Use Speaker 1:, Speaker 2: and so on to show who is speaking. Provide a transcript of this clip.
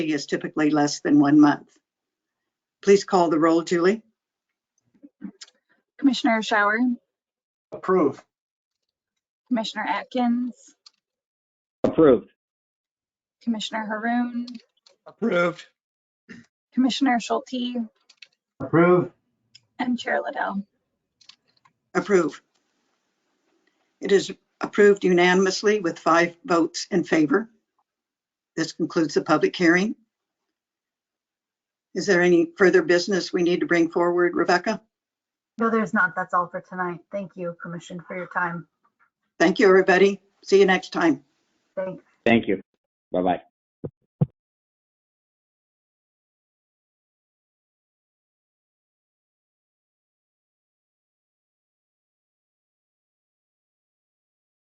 Speaker 1: is typically less than one month. Please call the roll, Julie.
Speaker 2: Commissioner Shower,
Speaker 3: Approve.
Speaker 2: Commissioner Atkins,
Speaker 4: Approved.
Speaker 2: Commissioner Haroon,
Speaker 3: Approved.
Speaker 2: Commissioner Schulte,
Speaker 3: Approved.
Speaker 2: and Chair Liddell.
Speaker 1: Approve. It is approved unanimously with five votes in favor. This concludes the public hearing. Is there any further business we need to bring forward, Rebecca?
Speaker 5: No, there's not. That's all for tonight. Thank you, Commission, for your time.
Speaker 1: Thank you, everybody. See you next time.
Speaker 5: Thanks.
Speaker 4: Thank you. Bye-bye.